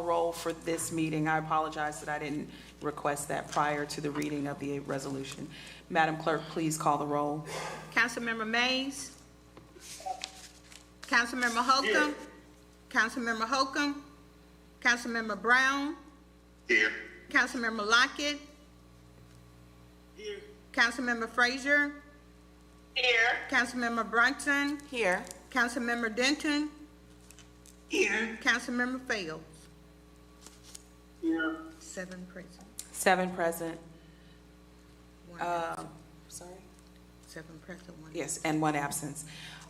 roll for this meeting. I apologize that I didn't request that prior to the reading of the resolution. Madam Clerk, please call the roll. Councilmember Mays? Councilmember Holcomb? Councilmember Holcomb? Councilmember Brown? Here. Councilmember Lockett? Here. Councilmember Frazier? Here. Councilmember Brunson? Here. Councilmember Denton? Here. Councilmember Fields? Here. Seven present, Seven present, one absent, sorry? seven present, one Yes, and one absence.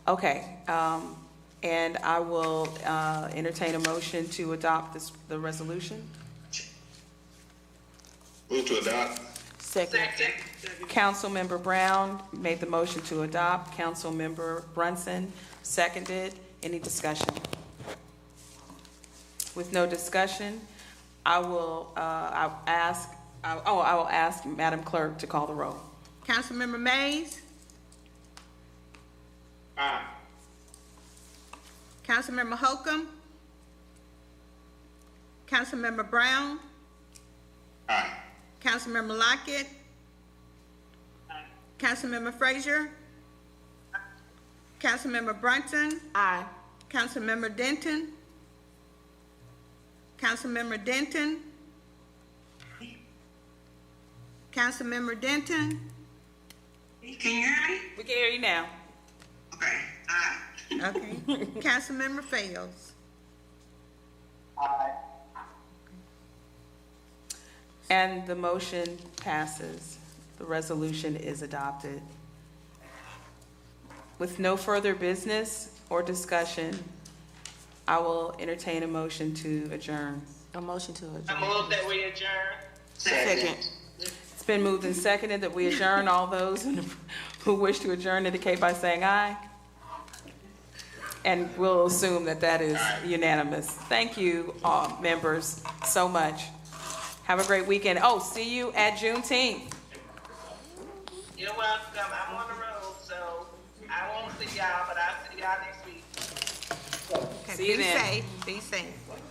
Okay, um, and I will uh, entertain a motion to adopt this, the resolution. Move to adopt. Second. Councilmember Brown made the motion to adopt. Councilmember Brunson seconded. Any discussion? With no discussion, I will, uh, I'll ask, I- oh, I will ask Madam Clerk to call the roll. Councilmember Mays? Aye. Councilmember Holcomb? Councilmember Brown? Aye. Councilmember Lockett? Councilmember Frazier? Councilmember Brunson? Aye. Councilmember Denton? Councilmember Denton? Councilmember Denton? Can you hear me? We can hear you now. Okay. Aye. Okay. Councilmember Fails? Aye. And the motion passes. The resolution is adopted. With no further business or discussion, I will entertain a motion to adjourn. A motion to adjourn. I move that we adjourn. Second. It's been moved and seconded that we adjourn. All those who wish to adjourn indicate by saying aye. And we'll assume that that is unanimous. Thank you, uh, members, so much. Have a great weekend. Oh, see you at Juneteenth. You're welcome. I'm on the road, so I won't see y'all, but I'll see y'all next week. Okay, See you be then. safe, be safe.